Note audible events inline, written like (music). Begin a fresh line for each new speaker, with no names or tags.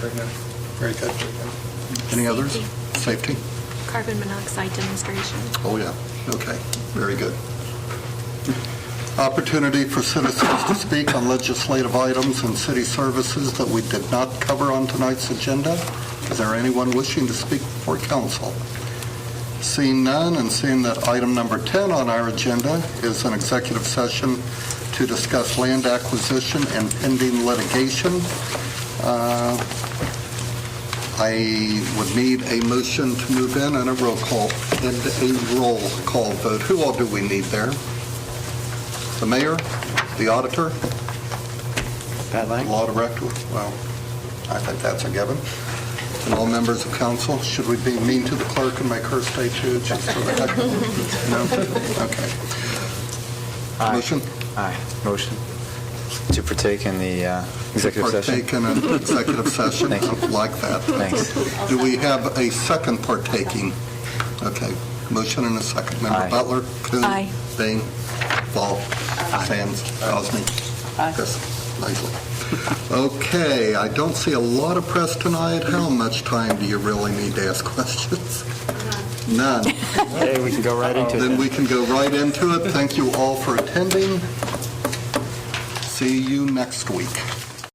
Very good. Very good.
Any others? Safety?
Carbon monoxide demonstration.
Oh, yeah. Okay, very good. Opportunity for citizens to speak on legislative items and city services that we did not cover on tonight's agenda. Is there anyone wishing to speak before council? Seeing none, and seeing that item number 10 on our agenda is an executive session to discuss land acquisition and pending litigation, uh, I would need a motion to move in and a roll call, and a roll call vote. Who all do we need there? The mayor, the auditor,
Pat
the law director? Well, I think that's a given. And all members of council, should we be mean to the clerk and make her stay too, just for the heck of it? No? Okay. Motion?
Aye. Motion to partake in the uh, executive session.
Partake in an
(laughs)
executive session.
Thank you.
I like that.
Thanks.
Do we have a second partaking? Okay, motion and a second. Member
Aye.
Butler? Kuhn,
Aye.
Bing? Ball? Sands? Osney? Yes, Leslie. Okay, I don't see a lot of press tonight. How much time do you really need to ask (laughs) questions? None.
Hey, we can go right into
Then we can go right into it. Thank you all for attending. See you next week.